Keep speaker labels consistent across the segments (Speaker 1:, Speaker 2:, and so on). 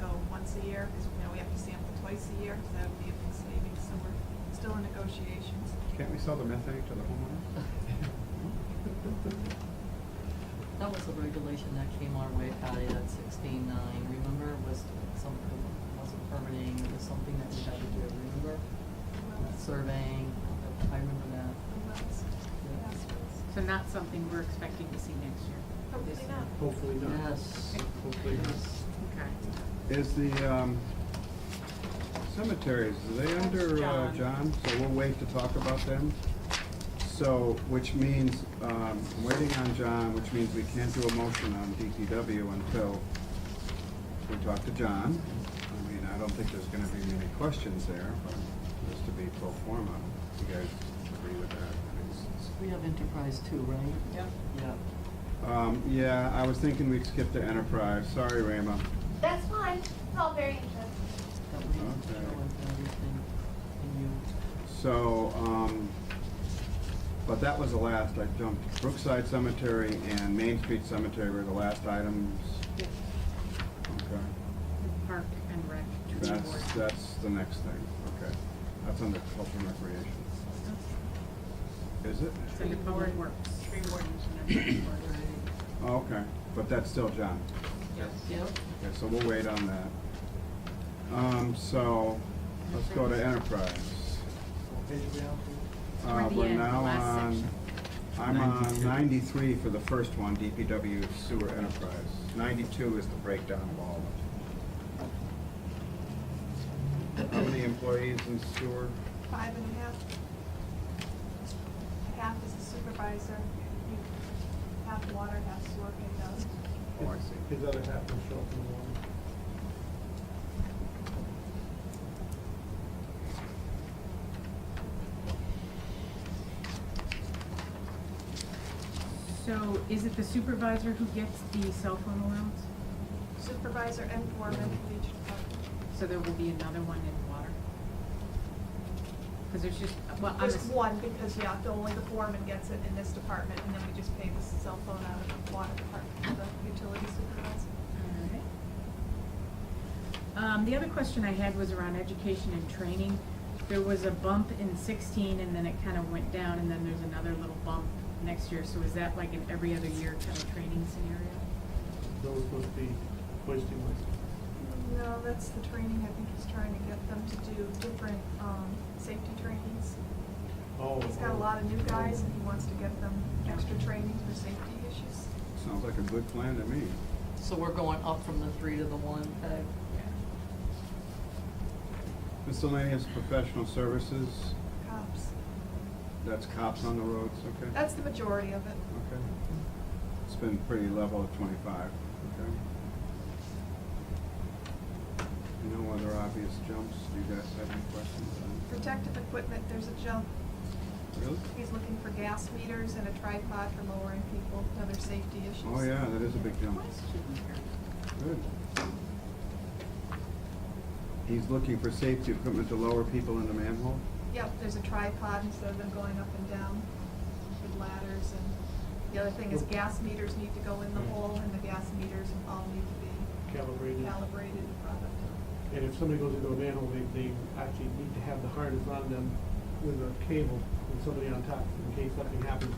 Speaker 1: a year, because, you know, we have to sample twice a year, so that would be a big savings, so we're still in negotiations.
Speaker 2: Can't we sell the methane to the homeowners?
Speaker 3: That was the regulation that came our way, Patty, that sixteen nine, remember, was something, wasn't permitting, it was something that we had to do, remember? Surveying, I remember that.
Speaker 4: So not something we're expecting to see next year.
Speaker 1: Hopefully not.
Speaker 2: Hopefully
Speaker 3: Yes.
Speaker 2: Hopefully not.
Speaker 3: Yes.
Speaker 4: Okay.
Speaker 2: Is the um, cemeteries, are they
Speaker 1: That's
Speaker 2: under uh,
Speaker 1: John.
Speaker 2: John? So we'll wait to talk about them. So, which means, um, I'm waiting on John, which means we can't do a motion on DPW until we talk to John. I mean, I don't think there's gonna be many questions there, but just to be pro forma, you guys agree with that? I mean,
Speaker 3: We have enterprise too, right?
Speaker 1: Yep.
Speaker 3: Yeah.
Speaker 2: Um, yeah, I was thinking we'd skip to enterprise. Sorry, Rama.
Speaker 5: That's fine. It's all very interesting.
Speaker 3: That we have to
Speaker 2: Okay.
Speaker 3: go with everything, and you,
Speaker 2: So, um, but that was the last. I jumped Brookside Cemetery and Main Street Cemetery were the last items. Okay.
Speaker 4: Park and Rec.
Speaker 2: That's, that's the next thing. Okay. That's under culture and recreation. Is it?
Speaker 4: So the public works.
Speaker 1: Tree wardens and everything.
Speaker 2: Oh, Okay, but that's still John.
Speaker 3: yep,
Speaker 2: Okay, so we'll wait on that. Um, so, let's go to enterprise. Uh,
Speaker 4: Toward the
Speaker 2: we're
Speaker 4: end, the
Speaker 2: Uh, now
Speaker 4: last
Speaker 2: on,
Speaker 4: section.
Speaker 2: I'm on
Speaker 6: 92.
Speaker 2: ninety-three for the first one, DPW sewer enterprise. Ninety-two is the breakdown of all of it. How many employees in sewer?
Speaker 1: Five and a half. Half is the supervisor, you- half water, half sewer, and those.
Speaker 2: Oh, I see.
Speaker 6: His other half will show up in the morning.
Speaker 4: So is it the supervisor who gets the cell phone allowance?
Speaker 1: Supervisor and foreman for each department.
Speaker 4: So there will be another one in water? Because there's just, well, I'm.
Speaker 1: There's
Speaker 4: ass-
Speaker 1: one, because, yeah, the only the foreman gets it in this department, and then we just pay the cell phone out of the water department, to the utility supervisor.
Speaker 4: Alright. Um, the other question I had was around education and training. There was a bump in sixteen and then it kind of went down and then there's another little bump next year. So is that like an every other year kind of training scenario?
Speaker 6: Those must be hoisting lights.
Speaker 1: No, that's the training, I think he's trying to get them to do different, um, safety trainings.
Speaker 6: Oh.
Speaker 1: He's got a lot of new guys, and he wants to get them extra training for safety issues.
Speaker 2: Sounds like a good plan to me.
Speaker 3: so we're going up from the three to the one, Peg?
Speaker 2: Miscellaneous professional services,
Speaker 1: Cops.
Speaker 2: that's cops on the roads, okay?
Speaker 1: That's the majority of it.
Speaker 2: Okay. It's been pretty level at twenty-five, okay? No other obvious jumps? Do you guys have any questions on?
Speaker 1: Protective equipment, there's a jump.
Speaker 2: Really?
Speaker 1: He's looking for gas meters and a tripod for lowering people, other safety issues.
Speaker 2: Oh, yeah, that is a big jump. Good. He's looking for safety equipment to lower people into manhole?
Speaker 1: Yep, there's a tripod instead of them going up and down with ladders and the other thing is gas meters need to go in the hole and the gas meters all need to be
Speaker 6: Calibrated.
Speaker 1: calibrated and brought up.
Speaker 6: And if somebody goes into a manhole, they, they actually need to have the harness on them with a cable and somebody on top in case something happens.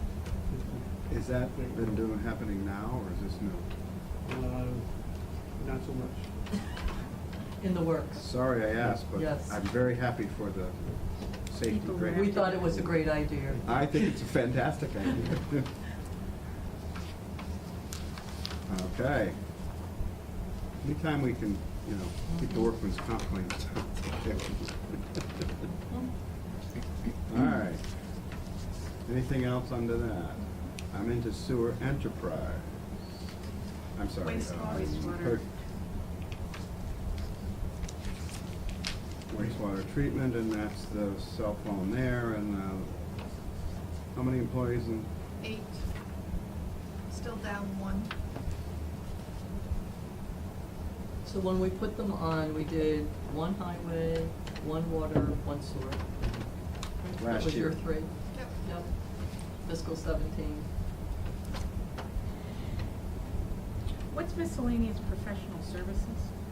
Speaker 2: Is that been doing, happening now, or is this new?
Speaker 6: Uh, Not so much.
Speaker 3: In the works.
Speaker 2: Sorry I asked, but
Speaker 3: Yes.
Speaker 2: I'm very happy for the safety
Speaker 4: People
Speaker 2: grant.
Speaker 3: We thought it was a great idea.
Speaker 2: I think it's a fantastic idea. Okay. Anytime we can, you know, keep the workman's comp clean. All right. Anything else under that? I'm into sewer enterprise. I'm sorry. uh,
Speaker 1: Wastewater.
Speaker 4: Wastewater.
Speaker 2: Wastewater treatment, and that's the cell phone there, and, uh, how many employees in
Speaker 1: Eight, still down one.
Speaker 3: So when we put them on, we did one highway, one water, one sewer. That
Speaker 2: Last
Speaker 3: was your
Speaker 2: year.
Speaker 3: three?
Speaker 1: Yep.
Speaker 3: Yep. Fiscal seventeen.
Speaker 4: What's miscellaneous professional services?